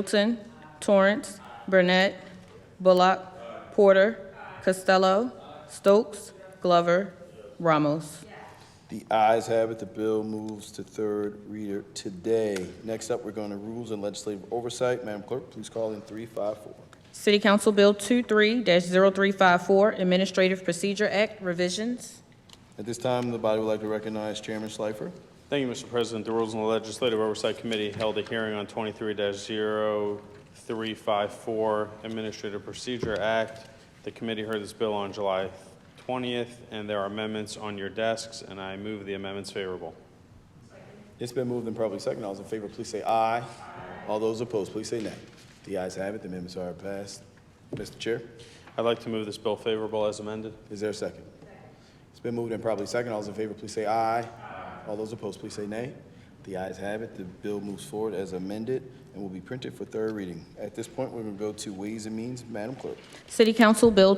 Middleton, Torrance, Burnett, Bullock, Porter, Costello, Stokes, Glover, Ramos. The ayes have it, the bill moves to third reader today. Next up, we're going to Rules and Legislative Oversight. Madam Clerk, please call in 354. City Council Bill 23-0354, Administrative Procedure Act revisions. At this time, the body would like to recognize Chairman Schleifer. Thank you, Mr. President. The Rules and Legislative Oversight Committee held a hearing on 23-0354 Administrative Procedure Act. The committee heard this bill on July 20th, and there are amendments on your desks, and I move the amendments favorable. It's been moved and probably second. All those in favor, please say aye. All those opposed, please say nay. The ayes have it, the amendments are passed. Mr. Chair, I'd like to move this bill favorable as amended. is there a second? It's been moved and probably second. All those in favor, please say aye. All those opposed, please say nay. The ayes have it, the bill moves forward as amended and will be printed for third reading. At this point, we're going to go to Ways and Means. Madam Clerk. City Council Bill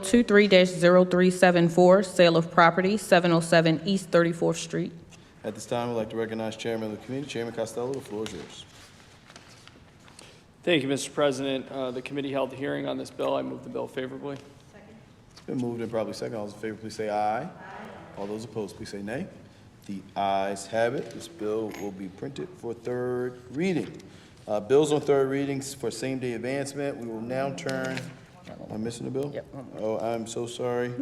23-0374, Sale of Property, 707 East 34th Street. At this time, I'd like to recognize Chairman of the Committee, Chairman Costello. The floor is yours. Thank you, Mr. President. Uh, The committee held a hearing on this bill. I move the bill favorably. It's been moved and probably second. All those in favor, please say aye. All those opposed, please say nay. The ayes have it. This bill will be printed for third reading. Uh, Bills on third readings for same-day advancement. We will now turn, am I missing a bill? Yep. Oh, I'm so sorry.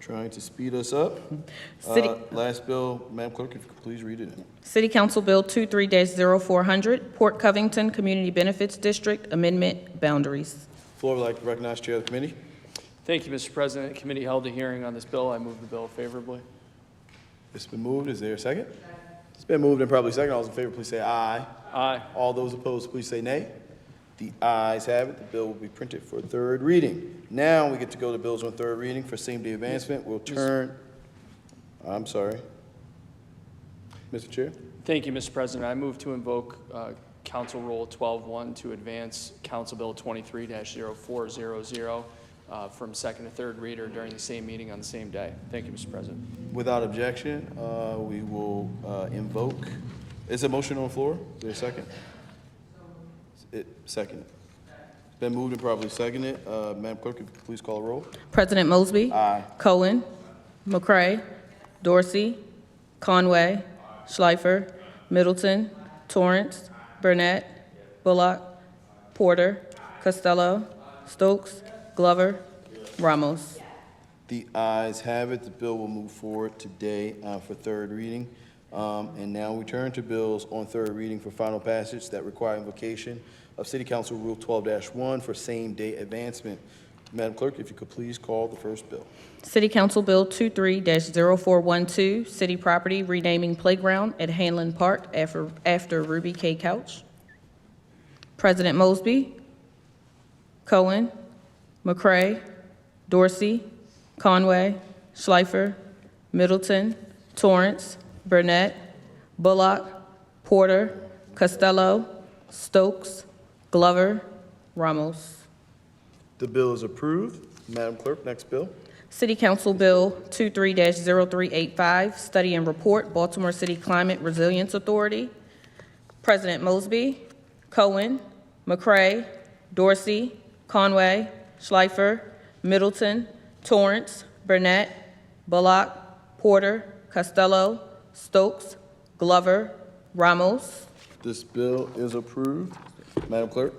Trying to speed us up. Mm-hmm. City- Uh, Last bill, Madam Clerk, if you could please read it. in. City Council Bill 23-0400, Port Covington Community Benefits District Amendment Boundaries. Floor would like to recognize Chair of the Committee. Thank you, Mr. President. The committee held a hearing on this bill. I move the bill favorably. It's been moved. Is there a second? It's been moved and probably second. All those in favor, please say aye. Aye. All those opposed, please say nay. The ayes have it, the bill will be printed for third reading. Now, we get to go to bills on third reading for same-day advancement. We'll turn, I'm sorry. Mr. Chair, Thank you, Mr. President. I move to invoke uh, Council Rule 12-1 to advance Council Bill 23-0400 uh, from second to third reader during the same meeting on the same day. Thank you, Mr. President. without objection, uh, we will uh, invoke, is a motion on the floor? Is there a second? It- Second. It's Been moved and probably seconded. Uh, Madam Clerk, if you could please call a roll. President Mosby. Aye. Cohen. McCray. Dorsey. Conway. Schleifer. Middleton. Torrance. Burnett. Bullock. Porter. Costello. Stokes. Glover. Ramos. The ayes have it, the bill will move forward today uh, for third reading. Um, And now we turn to bills on third reading for final passage that require invocation of City Council Rule 12-1 for same-day advancement. Madam Clerk, if you could please call the first bill. City Council Bill 23-0412, City Property Renaming Playground at Hanlon Park after after Ruby K. Couch. President Mosby. Cohen. McCray. Dorsey. Conway. Schleifer. Middleton. Torrance. Burnett. Bullock. Porter. Costello. Stokes. Glover. Ramos. The bill is approved. Madam Clerk, next bill. City Council Bill 23-0385, Study and Report, Baltimore City Climate Resilience Authority. President Mosby, Cohen, McCray, Dorsey, Conway, Schleifer, Middleton, Torrance, Burnett, Bullock, Porter, Costello, Stokes, Glover, Ramos. This bill is approved. Madam Clerk,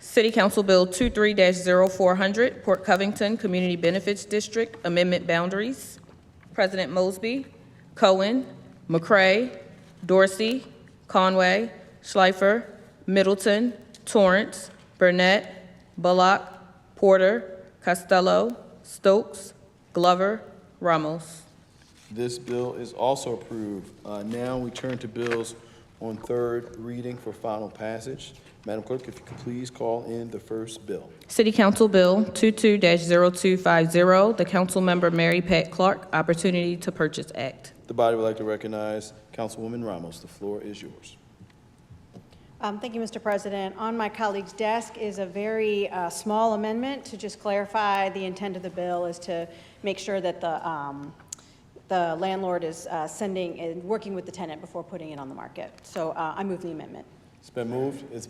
City Council Bill 23-0400, Port Covington Community Benefits District Amendment Boundaries. President Mosby, Cohen, McCray, Dorsey, Conway, Schleifer, Middleton, Torrance, Burnett, Bullock, Porter, Costello, Stokes, Glover, Ramos. this bill is also approved. Uh, Now we turn to bills on third reading for final passage. Madam Clerk, if you could please call in the first bill. City Council Bill 22-0250, the Councilmember Mary Pat Clark Opportunity to Purchase Act. The body would like to recognize Councilwoman Ramos. The floor is yours. Um, Thank you, Mr. President. On my colleague's desk is a very uh, small amendment to just clarify the intent of the bill is to make sure that the um, the landlord is uh, sending and working with the tenant before putting it on the market. So uh, I move the amendment. It's been moved. It's